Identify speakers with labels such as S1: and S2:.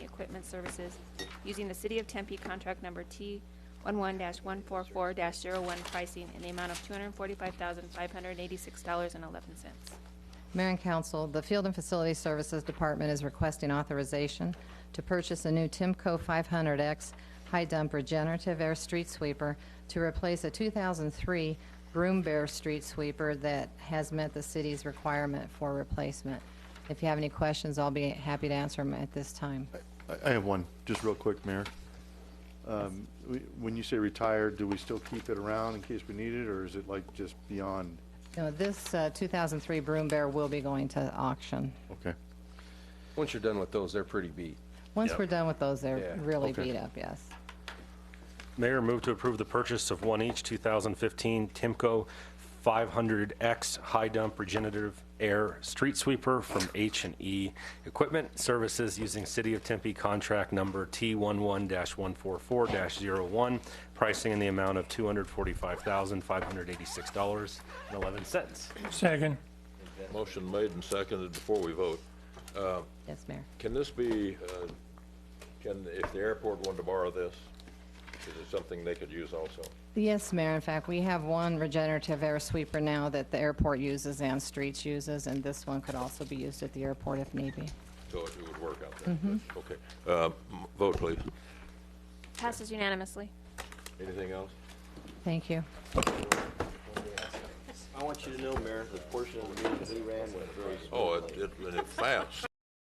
S1: Equipment Services using the City of Tempe contract number T one one four four 1 pricing in the amount of two hundred and forty-five thousand, five hundred and eighty-six dollars and eleven cents.
S2: Mayor and Council, the Field and Facility Services Department is requesting authorization to purchase a new Timco 500X high dump regenerative air street sweeper to replace a 2003 Broom Bear street sweeper that has met the city's requirement for replacement. If you have any questions, I'll be happy to answer them at this time.
S3: I- I have one, just real quick, Mayor. Um, we- When you say retired, do we still keep it around in case we need it, or is it like just beyond?
S2: No, this uh, 2003 Broom Bear will be going to auction.
S3: Okay.
S4: Once you're done with those, they're pretty beat.
S2: Once we're done with those, they're
S4: Yeah,
S2: really
S3: okay.
S2: beat up, yes.
S5: Mayor, move to approve the purchase of one each 2015 Timco 500X high dump regenerative air street sweeper from h and E Equipment Services using City of Tempe contract number T11-144-01, pricing in the amount of $245,586.11.
S6: Second.
S7: Motion made and seconded before we vote.
S2: Yes, Mayor.
S7: Can this be, uh, can, if the airport wanted to borrow this, is it something they could use also?
S2: Yes, Mayor. In fact, we have one regenerative air sweeper now that the airport uses and streets uses, and this one could also be used at the airport if need be.
S7: So it would work out there. Okay. Uh, m- Vote, please.
S1: Passes unanimously.
S7: Anything else?
S2: Thank you.
S8: I want you to know, Mayor, the portion of the meeting that he ran was very
S7: Oh, it, it- and it fast.